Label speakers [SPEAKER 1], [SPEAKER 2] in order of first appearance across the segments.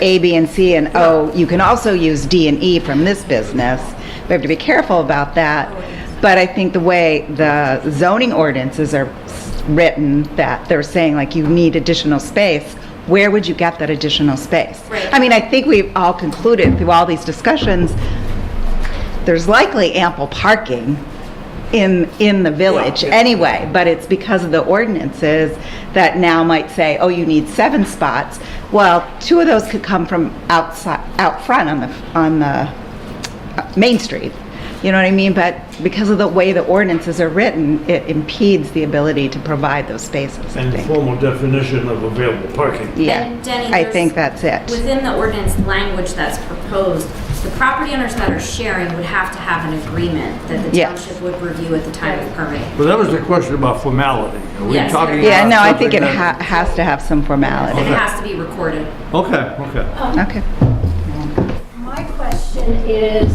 [SPEAKER 1] A, B, and C, and O. You can also use D and E from this business. We have to be careful about that. But I think the way the zoning ordinances are s- written, that they're saying like you need additional space, where would you get that additional space?
[SPEAKER 2] Right.
[SPEAKER 1] I mean, I think we've all concluded through all these discussions, there's likely ample parking in, in the village anyway, but it's because of the ordinances that now might say, oh, you need seven spots. Well, two of those could come from outside, out front on the, on the uh, Main Street. You know what I mean? But because of the way the ordinances are written, it impedes the ability to provide those spaces, I
[SPEAKER 3] And the
[SPEAKER 1] think.
[SPEAKER 3] formal definition of available parking.
[SPEAKER 1] Yeah,
[SPEAKER 2] And Denny,
[SPEAKER 1] I
[SPEAKER 2] there's-
[SPEAKER 1] think that's it.
[SPEAKER 2] Within the ordinance language that's proposed, the property owners that are sharing would have to have an agreement that the
[SPEAKER 1] Yes.
[SPEAKER 2] township would review at the time of permit.
[SPEAKER 3] But that was the question about formality. Are we
[SPEAKER 2] Yes.
[SPEAKER 3] talking
[SPEAKER 1] Yeah,
[SPEAKER 3] about
[SPEAKER 1] no, I think it
[SPEAKER 3] Uh, something
[SPEAKER 1] ha-
[SPEAKER 3] that-
[SPEAKER 1] has to have some
[SPEAKER 2] And
[SPEAKER 1] formality.
[SPEAKER 2] it has to be recorded.
[SPEAKER 3] Okay, okay.
[SPEAKER 1] Okay.
[SPEAKER 4] My question is,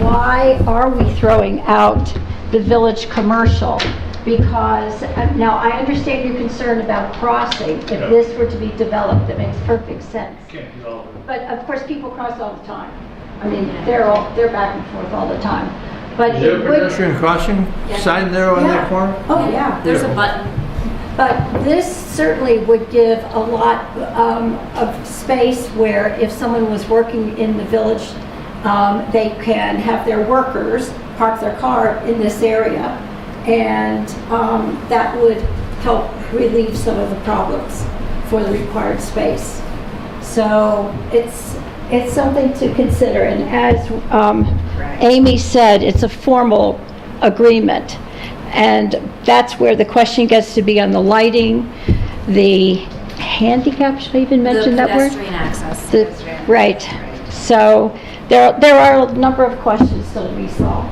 [SPEAKER 4] why are we throwing out the village commercial? Because, uh, now, I understand your concern about crossing. If this were to be developed, that makes perfect sense. But of course, people cross all the time. I mean, they're all, they're back and forth all the time. But
[SPEAKER 3] Is there
[SPEAKER 4] it
[SPEAKER 3] a
[SPEAKER 4] would
[SPEAKER 3] pedestrian crossing sign there on that
[SPEAKER 4] Yeah.
[SPEAKER 3] corner?
[SPEAKER 4] Oh, yeah.
[SPEAKER 2] There's a button.
[SPEAKER 4] But this certainly would give a lot um, of space where if someone was working in the village, um, they can have their workers park their car in this area, and um, that would help relieve some of the problems for the required space. So it's, it's something to consider, and as um, Amy said, it's a formal agreement, and that's where the question gets to be on the lighting, the handicap, should I even
[SPEAKER 2] The
[SPEAKER 4] mention that word?
[SPEAKER 2] pedestrian access.
[SPEAKER 4] The- Right, so there, there are a number of questions still to be solved.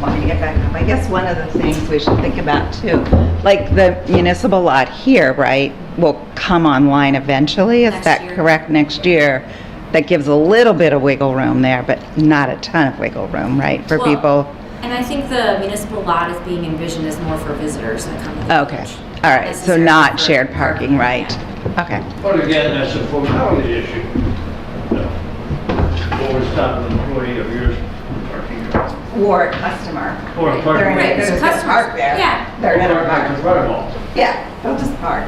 [SPEAKER 1] want me to get back up. I guess one of the things we should think about too, like the municipal lot here, right, will come online eventually, is
[SPEAKER 2] Next
[SPEAKER 1] that
[SPEAKER 2] year.
[SPEAKER 1] correct, next year? That gives a little bit of wiggle room there, but not a ton of wiggle room, right, for
[SPEAKER 2] Well,
[SPEAKER 1] people?
[SPEAKER 2] And I think the municipal lot is being envisioned as more for visitors that come. to the
[SPEAKER 1] Okay,
[SPEAKER 2] village.
[SPEAKER 1] all right, so
[SPEAKER 2] Necessarily
[SPEAKER 1] not
[SPEAKER 2] for-
[SPEAKER 1] shared parking, right?
[SPEAKER 2] Yeah.
[SPEAKER 1] Okay,
[SPEAKER 5] But again, that's a formality issue. Or stop an employee of yours from parking there.
[SPEAKER 1] or customer.
[SPEAKER 5] Or a parking.
[SPEAKER 2] Right, there's
[SPEAKER 1] They're gonna
[SPEAKER 2] customers.
[SPEAKER 1] park there.
[SPEAKER 2] Yeah.
[SPEAKER 1] They're gonna
[SPEAKER 5] Parking
[SPEAKER 1] park.
[SPEAKER 5] in front of all.
[SPEAKER 1] Yeah, they'll just park.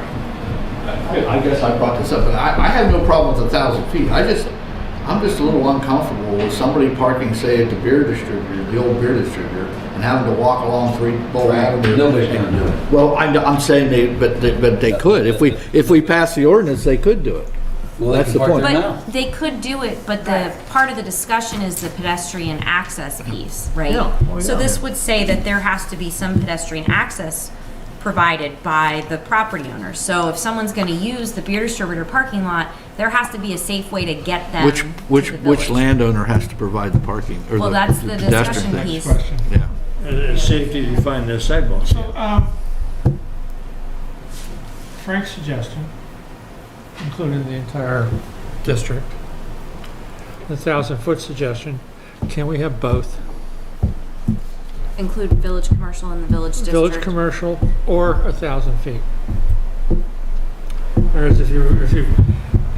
[SPEAKER 6] I guess I brought this up, but I, I have no problem with a thousand feet. I just, I'm just a little uncomfortable with somebody parking, say, at the beer distributor, the old beer distributor, and having to walk along three, four avenues. Nobody's gonna do it. Well, I'm, I'm saying they, but, they- but they could. If we, if we pass the ordinance, they could do it. Well, that's the point.
[SPEAKER 2] But they could do it, but the, part of the discussion is the pedestrian access piece, right? So this would say that there has to be some pedestrian access provided by the property owner. So if someone's gonna use the beer distributor parking lot, there has to be a safe way to get them
[SPEAKER 6] Which,
[SPEAKER 2] to
[SPEAKER 6] which,
[SPEAKER 2] the
[SPEAKER 6] which
[SPEAKER 2] village.
[SPEAKER 6] landowner has to provide the parking or
[SPEAKER 2] Well,
[SPEAKER 6] the
[SPEAKER 2] that's the
[SPEAKER 6] the pedestrian
[SPEAKER 2] discussion
[SPEAKER 6] thing?
[SPEAKER 2] piece.
[SPEAKER 6] Yeah.
[SPEAKER 3] And it's safety to find their sidewalks.
[SPEAKER 7] Um, Frank's suggestion including the entire district. The thousand-foot suggestion, can we have both?
[SPEAKER 2] Include village commercial and the village district.
[SPEAKER 7] Village commercial or a thousand feet? Whereas if you, if you,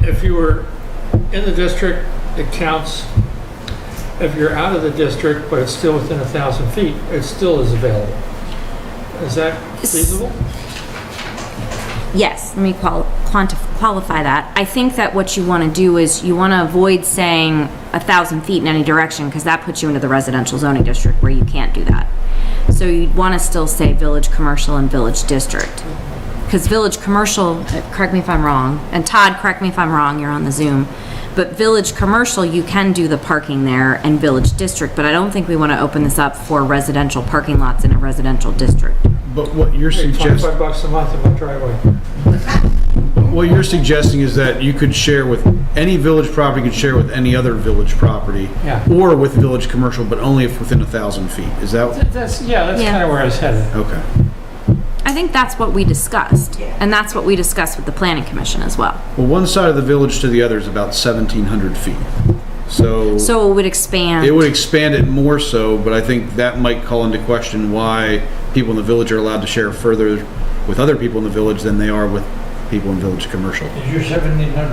[SPEAKER 7] if you were in the district, it counts. If you're out of the district, but it's still within a thousand feet, it still is available. Is that feasible?
[SPEAKER 2] Yes, let me qual- quantif- qualify that. I think that what you want to do is you want to avoid saying a thousand feet in any direction because that puts you into the residential zoning district where you can't do that. So you'd want to still say village commercial and village district. Because village commercial, uh, correct me if I'm wrong, and Todd, correct me if I'm wrong, you're on the Zoom. But village commercial, you can do the parking there and village district, but I don't think we want to open this up for residential parking lots in a residential district.
[SPEAKER 8] But what you're
[SPEAKER 7] Hey,
[SPEAKER 8] suggesting,
[SPEAKER 7] Twenty-five bucks a month in my driveway.
[SPEAKER 8] what you're suggesting is that you could share with, any village property could share with any other village property.
[SPEAKER 7] Yeah.
[SPEAKER 8] Or with village commercial, but only if within a thousand feet. Is that,
[SPEAKER 7] That's, yeah, that's
[SPEAKER 2] Yeah.
[SPEAKER 7] kind of where I was headed.
[SPEAKER 8] okay.
[SPEAKER 2] I think that's what we discussed. And that's what we discussed with the planning commission as well.
[SPEAKER 8] Well, one side of the village to the other is about seventeen hundred feet. So
[SPEAKER 2] So it would expand.
[SPEAKER 8] it would expand it more so, but I think that might call into question why people in the village are allowed to share further with other people in the village than they are with people in village commercial.
[SPEAKER 5] Is your 1,700